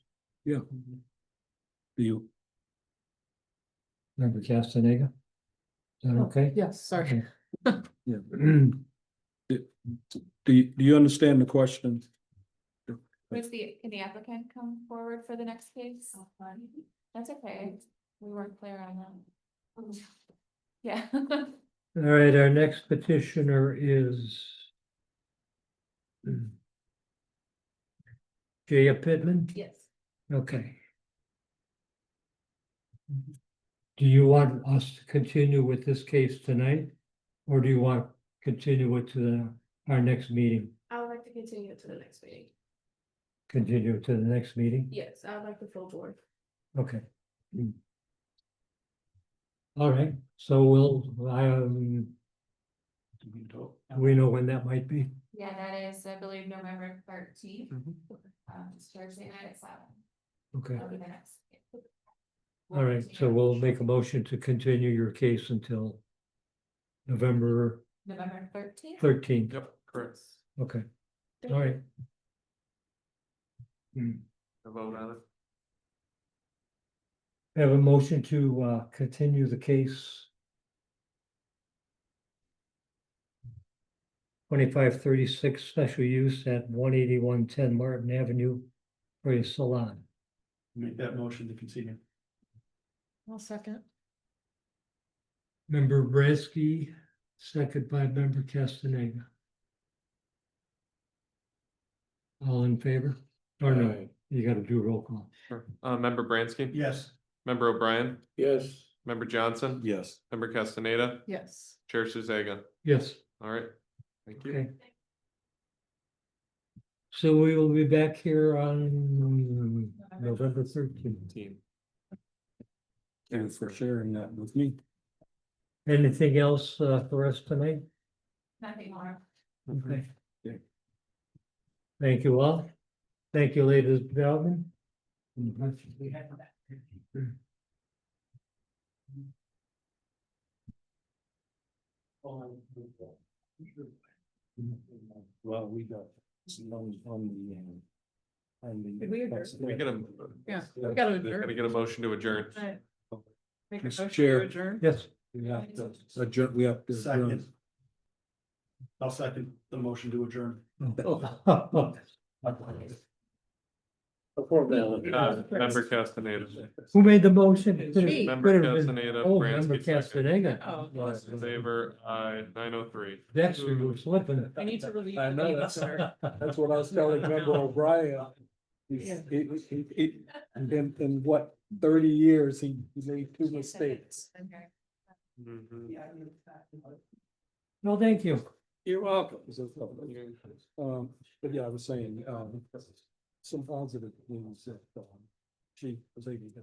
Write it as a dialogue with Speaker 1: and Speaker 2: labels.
Speaker 1: Yeah. Do you?
Speaker 2: Member Castaneda? Is that
Speaker 3: Oh,
Speaker 2: okay?
Speaker 3: Yes, sorry.
Speaker 2: Okay.
Speaker 1: Yeah. Do, do you- do you understand the question?
Speaker 4: Was the, can the applicant come forward for the next case? That's okay, we weren't clear on that. Yeah.
Speaker 2: All right, our next petitioner is Jaya Pittman?
Speaker 4: Yes.
Speaker 2: Okay. Do you want us to continue with this case tonight? Or do you want to continue it to the- our next meeting?
Speaker 3: I would like to continue it to the next meeting.
Speaker 2: Continue it to the next meeting?
Speaker 3: Yes, I would like the full board.
Speaker 2: Okay. All right, so we'll, um, we know when that might be?
Speaker 4: Yeah, that is, I believe, November thirteenth,
Speaker 2: Mm-hmm.
Speaker 4: um, it's Thursday night at seven.
Speaker 2: Okay,
Speaker 4: That'll be the next.
Speaker 2: all right, so we'll make a motion to continue your case until November
Speaker 4: November thirteenth?
Speaker 2: thirteenth,
Speaker 5: Yep, correct.
Speaker 2: okay, all right. Hmm.
Speaker 5: A vote on it.
Speaker 2: I Have a motion to uh continue the case. Twenty-five thirty-six special use at one eighty-one ten Martin Avenue for a salon.
Speaker 5: Make that motion to continue.
Speaker 3: One second.
Speaker 2: Member Bresky, second by member Castaneda. All in favor? Or no, you gotta do roll call.
Speaker 5: Uh, member Bransky?
Speaker 1: Yes.
Speaker 5: Member O'Brien?
Speaker 1: Yes.
Speaker 5: Member Johnson?
Speaker 1: Yes.
Speaker 5: Member Castaneda?
Speaker 3: Yes.
Speaker 5: Chair Suzega?
Speaker 2: Yes,
Speaker 5: All right. Thank you.
Speaker 2: okay. So we will be back here on November thirteenth.
Speaker 5: Team.
Speaker 1: And for sharing that with me.
Speaker 2: Anything else uh, for us tonight?
Speaker 4: Nothing more.
Speaker 2: Okay.
Speaker 1: Yeah.
Speaker 2: Thank you all. Thank you, ladies and gentlemen.
Speaker 1: Well, we got some on the. um, on the-
Speaker 3: Did we adjourn?
Speaker 5: We get a,
Speaker 3: Yeah, we gotta
Speaker 5: can I
Speaker 3: adjourn.
Speaker 5: get a motion to adjourn?
Speaker 3: Right. Make a
Speaker 1: Mr.
Speaker 3: motion
Speaker 1: Chair.
Speaker 3: to adjourn.
Speaker 2: Yes,
Speaker 1: We have to, adjourn- we have to. adjourn.
Speaker 6: Second. I'll second the motion to adjourn.
Speaker 5: Uh, member Castaneda?
Speaker 2: who made the motion? Could have-
Speaker 3: Me.
Speaker 5: Member
Speaker 2: could have been-
Speaker 5: Castaneda,
Speaker 2: Oh,
Speaker 5: Bransky
Speaker 2: member
Speaker 5: second.
Speaker 3: Oh.
Speaker 2: Castaneda.
Speaker 5: In favor, uh, nine oh three.
Speaker 2: Dexter was slipping it.
Speaker 3: I need to relieve.
Speaker 1: I
Speaker 3: the
Speaker 1: know,
Speaker 3: meeting,
Speaker 1: that's-
Speaker 3: sir.
Speaker 1: That's what I was telling Member O'Brien. He's- he- he- he- In, in what, thirty years, he he made two mistakes.
Speaker 4: Okay.
Speaker 2: No, thank you.
Speaker 1: You're welcome. Um, but yeah, I was saying, um, some positive things that, um, she was able to.